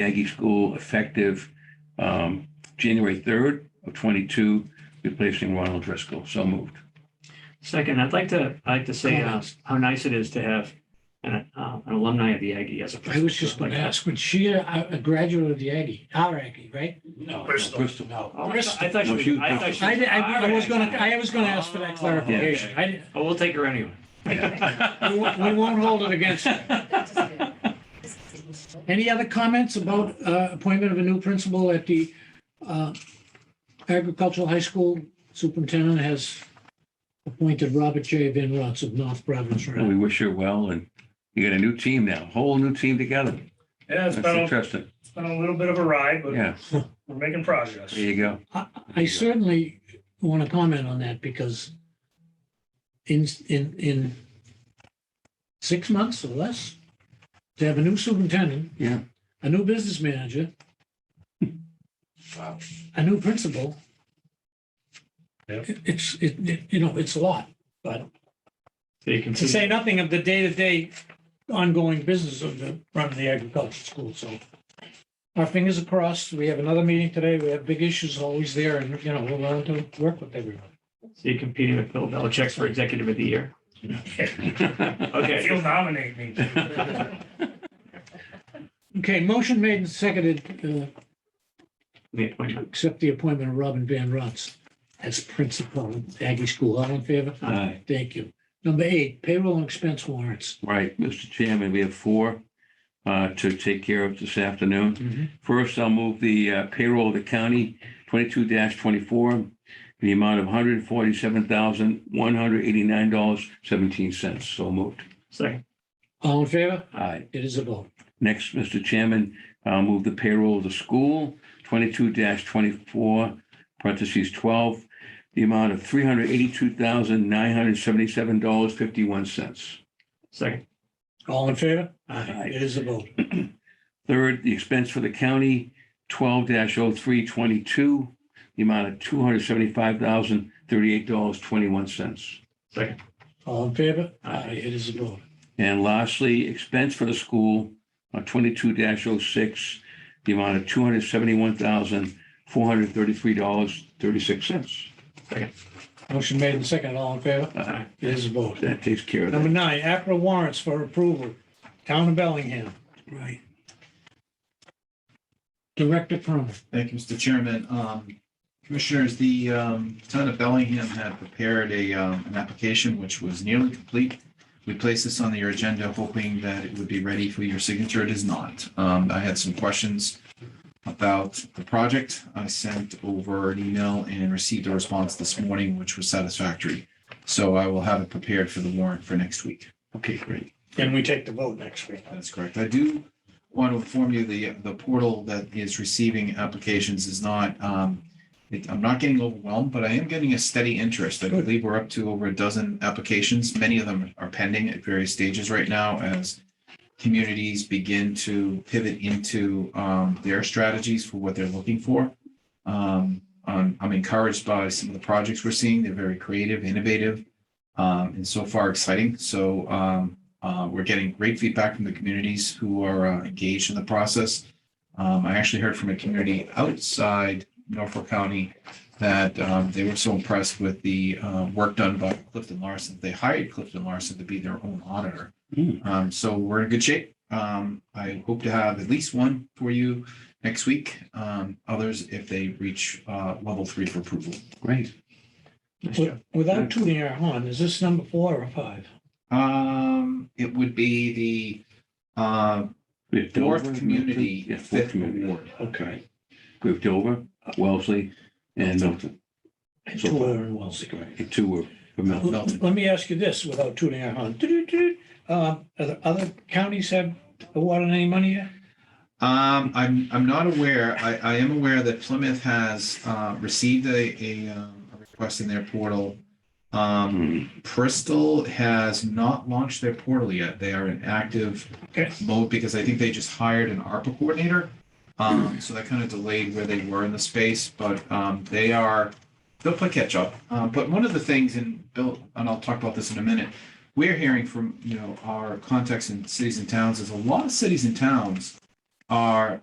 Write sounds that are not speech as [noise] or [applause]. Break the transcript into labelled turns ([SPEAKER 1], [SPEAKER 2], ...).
[SPEAKER 1] Aggie School effective um, January 3rd of '22, replacing Ronald Driscoll. So moved.
[SPEAKER 2] Second, I'd like to, I'd like to say uh, how nice it is to have an uh, an alumni of the Aggie as a.
[SPEAKER 3] I was just going to ask, was she a a graduate of the Aggie, our Aggie, right?
[SPEAKER 4] No.
[SPEAKER 1] Bristol. Bristol.
[SPEAKER 4] No.
[SPEAKER 2] Oh, I thought- I thought
[SPEAKER 1] No, she
[SPEAKER 2] she
[SPEAKER 1] was
[SPEAKER 2] was. I thought she
[SPEAKER 3] I,
[SPEAKER 2] was-
[SPEAKER 3] di- I I was going to, I was going to ask for
[SPEAKER 2] Oh,
[SPEAKER 3] that clarification. I, di-
[SPEAKER 2] Oh, we'll take her
[SPEAKER 3] [laughs]
[SPEAKER 2] anyway.
[SPEAKER 3] we won't- we won't hold it against her.
[SPEAKER 4] [laughs]
[SPEAKER 3] Any other comments about uh, appointment of a new principal at the uh, agricultural high school? Superintendent has appointed Robert J. Van Rotz of North Providence, Rhode
[SPEAKER 1] And
[SPEAKER 3] Island.
[SPEAKER 1] we wish her well, and you got a new team now, whole new team together.
[SPEAKER 4] Yeah, it's
[SPEAKER 1] That's
[SPEAKER 4] been, a-
[SPEAKER 1] interesting.
[SPEAKER 4] it's been a little bit of a ride, but
[SPEAKER 1] Yeah,
[SPEAKER 4] we're making progress.
[SPEAKER 1] there you
[SPEAKER 4] [laughs]
[SPEAKER 1] go.
[SPEAKER 3] I- I certainly want to comment on that because in, in, in six months or less, to have a new superintendent,
[SPEAKER 1] Yeah,
[SPEAKER 3] a new business manager,
[SPEAKER 4] Wow.
[SPEAKER 3] a new principal.
[SPEAKER 4] Yep.
[SPEAKER 3] it- It's, it, it- you know, it's a lot, but
[SPEAKER 2] So you can
[SPEAKER 3] to
[SPEAKER 2] see,
[SPEAKER 3] say nothing of the day-to-day ongoing business of the, run of the agricultural school, so. Our fingers are crossed. We have another meeting today. We have big issues always there and, you know, we're willing to work with everyone.
[SPEAKER 2] so you're competing with Bill Belichick for executive of the year.
[SPEAKER 4] If
[SPEAKER 2] Okay,
[SPEAKER 4] you'll nominate me.
[SPEAKER 3] Okay, motion made and seconded, uh,
[SPEAKER 2] the appointment.
[SPEAKER 3] accept the appointment of Robin Van Rotz as principal of Aggie School. All in favor?
[SPEAKER 1] Aye.
[SPEAKER 3] Thank you. Number eight, payroll and expense warrants.
[SPEAKER 1] right, Mr. Chairman, we have four uh, to take care of this afternoon. First, I'll move the uh, payroll of the county twenty-two twenty-four in the amount of one hundred forty-seven thousand, one hundred eighty-nine dollars, seventeen cents. So moved.
[SPEAKER 2] Second,
[SPEAKER 3] All in favor?
[SPEAKER 1] Aye.
[SPEAKER 3] It is a vote.
[SPEAKER 1] Next, Mr. Chairman, I'll move the payroll of the school twenty-two twenty-four, parentheses twelve, the amount of three hundred eighty-two thousand, nine hundred seventy-seven dollars, fifty-one cents.
[SPEAKER 2] second,
[SPEAKER 3] All in favor?
[SPEAKER 1] Aye.
[SPEAKER 3] It is a vote.
[SPEAKER 1] Third, the expense for the county, twelve 322 the amount of two hundred seventy-five thousand, thirty-eight dollars, twenty-one cents.
[SPEAKER 2] second,
[SPEAKER 3] All in favor?
[SPEAKER 2] Aye.
[SPEAKER 3] It is a vote.
[SPEAKER 1] And lastly, expense for the school, uh, twenty-two 6 the amount of two hundred seventy-one thousand, four hundred thirty-three dollars, thirty-six cents.
[SPEAKER 3] Motion made and seconded. All in favor?
[SPEAKER 1] Aye.
[SPEAKER 3] It is a vote.
[SPEAKER 1] That takes care of
[SPEAKER 3] Number
[SPEAKER 1] that.
[SPEAKER 3] nine, APRA warrants for approval. Town of Bellingham,
[SPEAKER 1] Right.
[SPEAKER 3] Director Cronin.
[SPEAKER 5] Thank you, Mr. Chairman. Um, Commissioners, the um, town of Bellingham had prepared a, um, an application which was nearly complete. We placed this on your agenda hoping that it would be ready for your signature. It is not. Um, I had some questions about the project. I sent over an email and received a response this morning, which was satisfactory. So I will have it prepared for the warrant for next week.
[SPEAKER 1] Okay, great.
[SPEAKER 3] And we take the vote next week.
[SPEAKER 5] That's correct. I do want to inform you, the, the portal that is receiving applications is not, um, it, I'm not getting overwhelmed, but I am getting a steady interest. I
[SPEAKER 3] Good.
[SPEAKER 5] believe we're up to over a dozen applications. Many of them are pending at various stages right now as communities begin to pivot into, um, their strategies for what they're looking for. Um, I'm, I'm encouraged by some of the projects we're seeing. They're very creative, innovative, um, and so far exciting. So, um, uh, we're getting great feedback from the communities who are uh, engaged in the process. Um, I actually heard from a community outside Norfolk County that um, they were so impressed with the uh, work done by Clifton Larson. They hired Clifton Larson to be their own auditor.
[SPEAKER 1] Hmm.
[SPEAKER 5] Um, so we're in good shape. Um, I hope to have at least one for you next week. Um, others if they reach uh, level three for approval.
[SPEAKER 1] Great.
[SPEAKER 2] nice
[SPEAKER 3] Wi-
[SPEAKER 2] job.
[SPEAKER 3] Without tooting our horn, is this number four or five?
[SPEAKER 5] Um, it would be the uh,
[SPEAKER 1] We have
[SPEAKER 5] fourth
[SPEAKER 1] Dover,
[SPEAKER 5] community,
[SPEAKER 1] Milton. Yeah, fourth
[SPEAKER 5] fifth
[SPEAKER 1] community.
[SPEAKER 5] award.
[SPEAKER 1] Okay. We have Dover, Wellesley, and Milton. So far.
[SPEAKER 3] Two are in Wellesley.
[SPEAKER 1] The Two were for Milton.
[SPEAKER 5] Milton.
[SPEAKER 3] Let me ask you this without tooting our horn. Do-do-do. Uh, are the Other counties have awarded any money yet?
[SPEAKER 5] Um, I'm, I'm not aware. I, I am aware that Plymouth has, uh, received a, a, um, a request in their portal. Um,
[SPEAKER 1] Hmm.
[SPEAKER 5] Bristol has not launched their portal yet. They are in active
[SPEAKER 3] Okay.
[SPEAKER 5] mode because I think they just hired an ARPA coordinator. Um, so that kind of delayed where they were in the space, but um, they are they'll play catch up. Um, but one of the things, and Bill, and I'll talk about this in a minute. We're hearing from you know our contacts in cities and towns is a lot of cities and towns are